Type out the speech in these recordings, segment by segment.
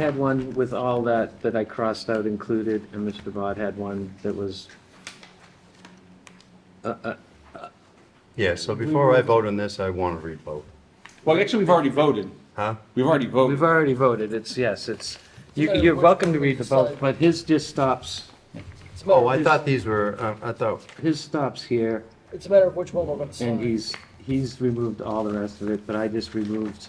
had one with all that, that I crossed out included, and Mr. Bod had one that was, uh, uh, Yeah, so before I vote on this, I want to revote. Well, actually, we've already voted. Huh? We've already we've voted. already voted, it's, yes, it's, you- you're welcome to read the vote, but his just stops, It's a matter Oh, of I which- thought these were, uh, I thought, his stops here, It's a matter of which one we're gonna and sign. he's, he's removed all the rest of it, but I just removed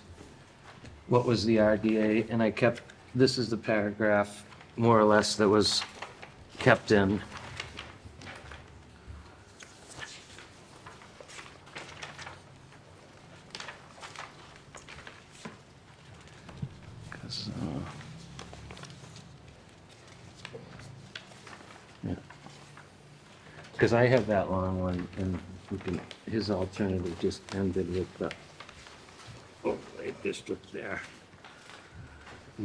what was the RDA, and I kept, this is the paragraph, more or less, that was kept in. Because I have that long one, and we can, his alternative just ended with the overlay district there.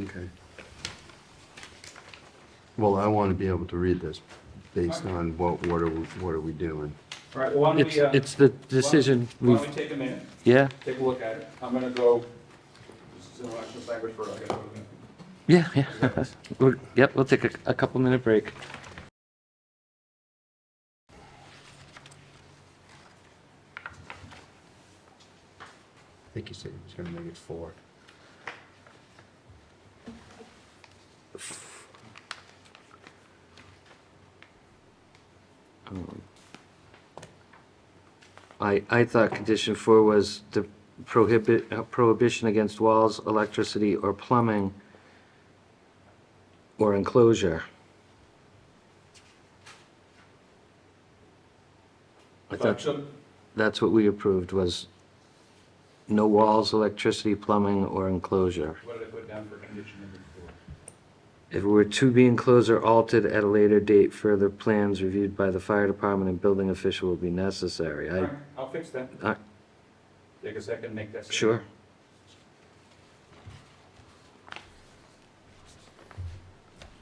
okay. Well, I want to be able to read this based on what, what are, we- what are we doing? All right, well, why don't It's, we, uh, it's the decision why we've, don't we take a minute, yeah, take a look at it? I'm gonna go, this is intellectual language for, I gotta go. yeah, yeah. We're- Yep, we'll take a, a couple minute break. I think you said he was going to make it four. I, I thought condition four was the prohibit, uh, prohibition against walls, electricity, or plumbing or enclosure. I But thought so- that's what we approved was no walls, electricity, plumbing, or enclosure. What did I put down for condition number four? If it were to be enclosed or altered at a later date, further plans reviewed by the fire department and building official will be necessary. All I, right, I'll fix that. I, Take a second, make that. sure.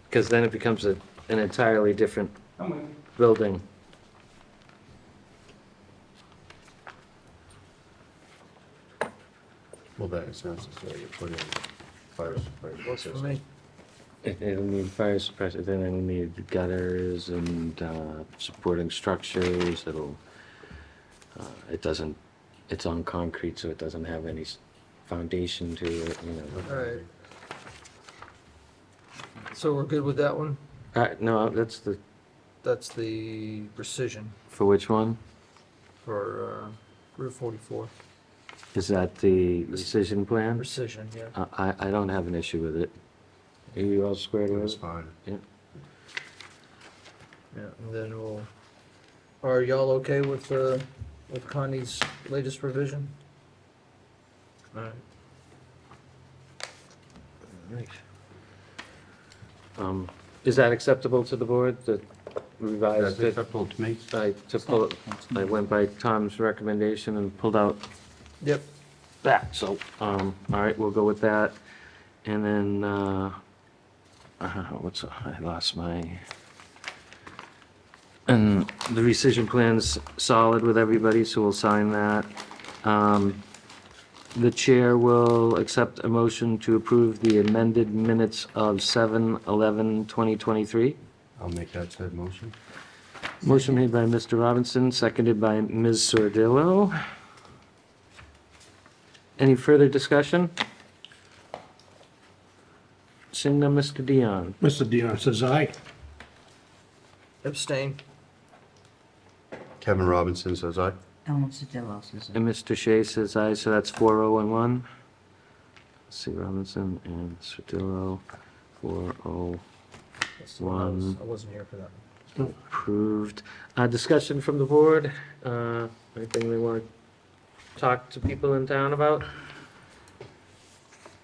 Because then it becomes a, an entirely different I'm with you. building. Well, that is necessary to put in fire suppression. It- It'll need fire suppressor, then it'll need gutters and uh, supporting structures, it'll, uh, it doesn't, it's on concrete, so it doesn't have any s- foundation to it, you know. All right. So we're good with that one? Uh, No, that's the, That's the precision for which one? for uh, Route 44. Is that the decision plan? Precision, yeah. I, I- I don't have an issue with it. Are you all squared It was with it? fine. Yeah, and then we'll, are y'all okay with, uh, with Connie's latest revision? Alright. Um, Is that acceptable to the board, the That's revised? acceptable to me. I took, all- I went by Tom's recommendation and pulled out Yep, that, so, um, all right, we'll go with that. And then, uh, uh, what's, I lost my, and the rescission plan's solid with everybody, so we'll sign that. Um, the chair will accept a motion to approve the amended minutes of seven eleven twenty twenty-three. I'll make that said motion. Motion made by Mr. Robinson, seconded by Ms. Sordillo. Any further discussion? Seeing none, Mr. Dion. Mr. Dion says aye. abstain. Kevin Robinson says aye. Ellen Sodillo says aye. And Mr. Shea says aye, so that's 4011. See Robinson and Sordillo, 4011 That's the one I was- One. I wasn't here for that. approved. Uh, Discussion from the board, Uh, anything they want to talk to people in town about?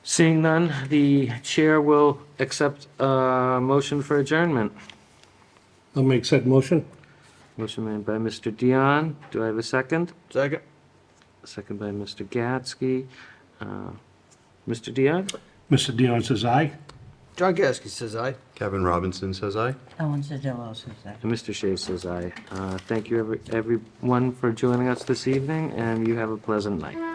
Seeing none, the chair will accept a motion for adjournment. I'll make said motion. Motion made by Mr. Dion. Do I have a second? Second. Second by Mr. Gatsky. Uh, Mr. Dion? Mr. Dion says aye. John Gasky says aye. Kevin Robinson says aye. Ellen Sodillo says aye. And Mr. Shea says aye. Uh, Thank you, every- everyone, for joining us this evening, and you have a pleasant night.